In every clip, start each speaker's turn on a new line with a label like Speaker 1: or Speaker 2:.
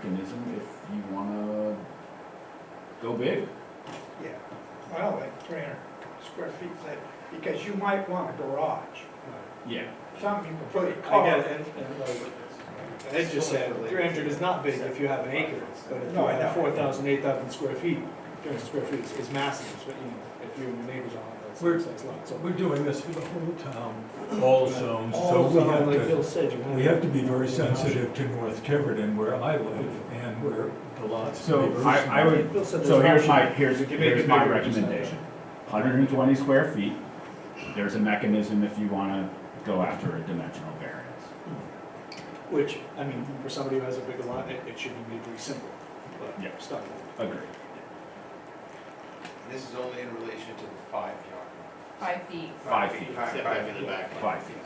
Speaker 1: mechanism if you wanna go big.
Speaker 2: Yeah, well, like three hundred square feet, that- because you might want a garage,
Speaker 1: Yeah.
Speaker 2: something you can put your
Speaker 3: I
Speaker 2: car
Speaker 3: get
Speaker 2: in.
Speaker 3: it, and, and like, Ed just said, three hundred is not big if you have an acre, but if you
Speaker 2: No, I know.
Speaker 3: have four thousand, eight thousand square feet, three hundred square feet is- is massive, it's what, you know, if you and your neighbors on it,
Speaker 4: We're-
Speaker 3: that's, that's a lot, so.
Speaker 4: We're doing this for the whole town, all zones, so
Speaker 3: All
Speaker 4: we
Speaker 3: zone, like
Speaker 4: have
Speaker 3: Bill
Speaker 4: to,
Speaker 3: said, you want.
Speaker 4: we have to be very sensitive to North Tiverton where I live and where the lots. can be
Speaker 1: So
Speaker 4: very
Speaker 1: I, I
Speaker 4: small.
Speaker 1: would,
Speaker 3: Bill said
Speaker 1: so
Speaker 3: there's
Speaker 1: here's
Speaker 3: options.
Speaker 1: my, here's,
Speaker 3: You make
Speaker 1: here's
Speaker 3: it
Speaker 1: my
Speaker 3: bigger, just not-
Speaker 1: recommendation. Hundred and twenty square feet, there's a mechanism if you wanna go after a dimensional variance.
Speaker 3: Which, I mean, for somebody who has a bigger lot, it, it should be made very simple, but
Speaker 1: Yeah.
Speaker 3: stuff.
Speaker 1: Agreed.
Speaker 5: This is only in relation to the five yard.
Speaker 6: five feet.
Speaker 1: Five feet,
Speaker 5: Five,
Speaker 7: Step
Speaker 5: five
Speaker 7: back in the back.
Speaker 1: five feet.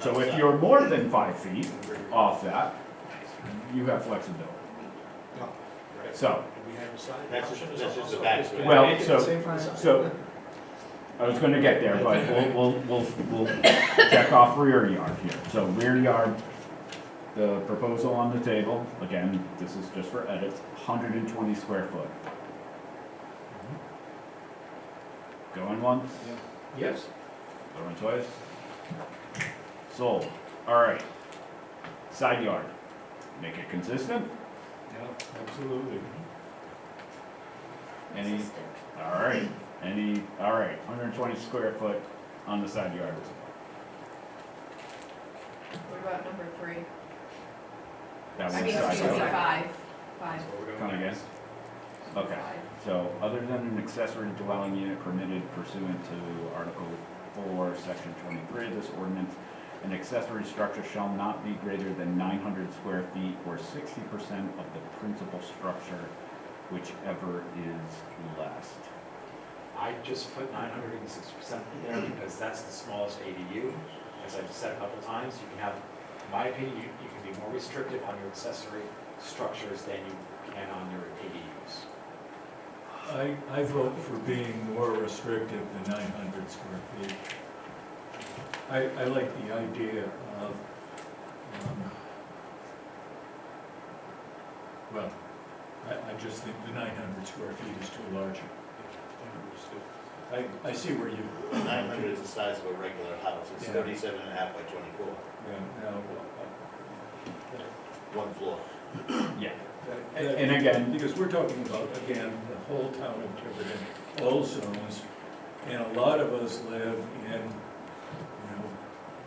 Speaker 1: So if you're more than five feet off that, you have flexibility.
Speaker 5: Right.
Speaker 1: So,
Speaker 3: Do we have a side?
Speaker 7: That's just-
Speaker 3: option?
Speaker 7: that's just the
Speaker 3: Also,
Speaker 7: back.
Speaker 3: just-
Speaker 1: Well,
Speaker 3: make it
Speaker 1: so-
Speaker 3: the same for the side.
Speaker 1: so, I was gonna get there, but we'll, we'll, we'll, we'll check off rear yard here. So rear yard, the proposal on the table, again, this is just for edits, hundred and twenty square foot. Going once?
Speaker 3: Yes.
Speaker 1: Going twice? Sold, alright. Side yard, make it consistent,
Speaker 4: Absolutely.
Speaker 1: any, alright, any, alright, hundred and twenty square foot on the side yard.
Speaker 6: What about number three?
Speaker 1: That
Speaker 6: I
Speaker 1: was
Speaker 6: mean,
Speaker 1: side
Speaker 6: excuse me,
Speaker 1: yard.
Speaker 6: five, five.
Speaker 5: So we're going
Speaker 1: Come again?
Speaker 5: next.
Speaker 1: Okay,
Speaker 6: Five.
Speaker 1: so other than an accessory dwelling unit permitted pursuant to Article four, section twenty-three of this ordinance, an accessory structure shall not be greater than nine hundred square feet or sixty percent of the principal structure, whichever is less.
Speaker 7: I just put nine hundred and six percent in there because that's the smallest ADU. As I've said a couple times, you can have, in my opinion, you, you can be more restrictive on your accessory structures than you can on your ADUs.
Speaker 4: I, I vote for being more restrictive than nine hundred square feet. I, I like the idea of, um, well, I, I just think the nine hundred square feet is too large. I, I see where you.
Speaker 7: Nine hundred is the size of a regular house, it's
Speaker 4: Yeah.
Speaker 7: thirty-seven and a half by twenty-four,
Speaker 4: Yeah, no, uh,
Speaker 7: one floor.
Speaker 1: Yeah,
Speaker 4: that-
Speaker 1: and
Speaker 4: that-
Speaker 1: and again,
Speaker 4: uh, Because we're talking about, again, the whole town of Tiverton, all zones, and a lot of us live in, you know,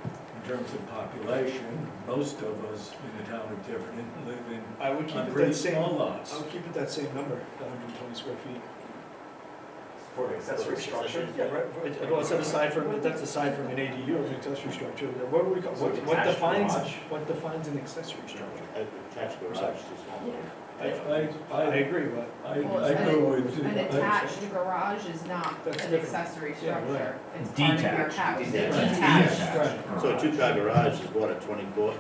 Speaker 4: in terms of population, most of us in the town of Tiverton live in,
Speaker 3: I would keep
Speaker 4: on
Speaker 3: it that
Speaker 4: pretty
Speaker 3: same,
Speaker 4: small
Speaker 3: I
Speaker 4: lots.
Speaker 3: would keep it that same number, hundred and twenty square feet.
Speaker 7: For an accessory structure?
Speaker 3: Yeah, right, it- well, it's set aside from, that's aside from an ADU or an accessory structure, what do we call,
Speaker 7: So
Speaker 3: what
Speaker 7: it's
Speaker 3: what
Speaker 7: attached
Speaker 3: defines,
Speaker 7: garage?
Speaker 3: what defines an accessory structure?
Speaker 7: Attached garage is too small.
Speaker 3: I,
Speaker 4: I,
Speaker 3: I
Speaker 4: I,
Speaker 3: agree, but
Speaker 4: I,
Speaker 6: Well,
Speaker 4: I go with.
Speaker 6: An
Speaker 4: I-
Speaker 6: attached garage is not
Speaker 3: That's
Speaker 6: an
Speaker 3: different.
Speaker 6: accessory
Speaker 3: Yeah, right.
Speaker 6: structure. It's part of your
Speaker 1: detached.
Speaker 6: house. They're
Speaker 8: Detached.
Speaker 6: Detached.
Speaker 1: Detached.
Speaker 8: So a two-car garage is what, a twenty-four,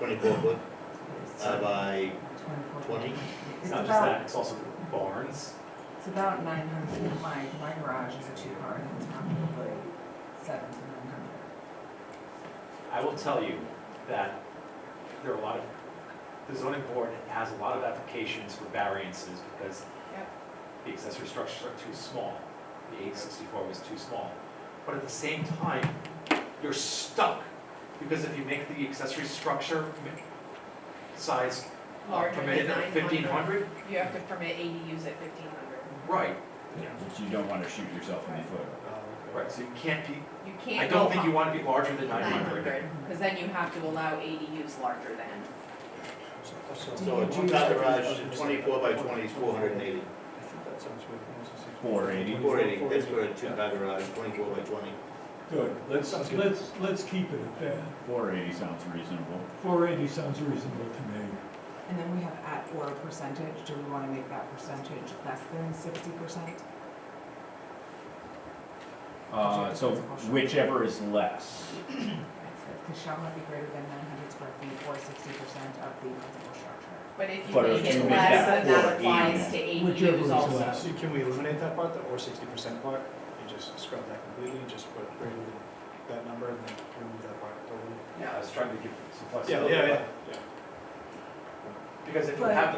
Speaker 8: twenty-four foot uh, by twenty?
Speaker 7: It's not just that, it's also barns.
Speaker 9: It's about nine hundred, my, my garage is a two-car, and it's probably seven to nine hundred.
Speaker 7: I will tell you that there are a lot of, the zoning board has a lot of applications for variances because
Speaker 6: Yep.
Speaker 7: the accessory structures are too small. The eight sixty-four was too small. But at the same time, you're stuck, because if you make the accessory structure mi- size uh,
Speaker 6: Larger than
Speaker 7: permitted at fifteen
Speaker 6: 900.
Speaker 7: hundred,
Speaker 6: You have to permit ADUs at fifteen hundred.
Speaker 7: right,
Speaker 1: which you don't wanna shoot yourself in the foot.
Speaker 7: right, so you can't be,
Speaker 6: You
Speaker 7: I
Speaker 6: can't go.
Speaker 7: don't think you wanna be larger than nine
Speaker 6: Nine
Speaker 7: hundred.
Speaker 6: hundred, because then you have to allow ADUs larger than.
Speaker 8: So a two-car garage, twenty-four by twenty is four hundred and eighty.
Speaker 3: I think that sounds right.
Speaker 1: Four eighty.
Speaker 8: Four eighty, that's for a two-car garage, twenty-four by twenty.
Speaker 4: Good, let's,
Speaker 3: Sounds good.
Speaker 4: let's, let's keep it at that.
Speaker 1: Four eighty sounds reasonable.
Speaker 4: Four eighty sounds reasonable to me.
Speaker 9: And then we have at or percentage, do we wanna make that percentage less than sixty percent?
Speaker 1: Uh, so whichever is less.
Speaker 9: It shall not be greater than nine hundred square feet or sixty percent of the principal structure.
Speaker 6: But if you
Speaker 1: But
Speaker 6: make
Speaker 1: if you
Speaker 6: it
Speaker 1: make
Speaker 6: less,
Speaker 1: that
Speaker 6: then that
Speaker 1: four
Speaker 6: applies to
Speaker 4: Whichever is
Speaker 6: ADUs also.
Speaker 4: less.
Speaker 3: So can we eliminate that part, the or sixty percent part, and just scrub that completely, and just put greater than that number, and then remove that part totally?
Speaker 7: Yeah, I was trying to give some
Speaker 3: Yeah,
Speaker 7: flexibility.
Speaker 3: yeah, yeah.
Speaker 7: Because if you
Speaker 9: But-
Speaker 7: have the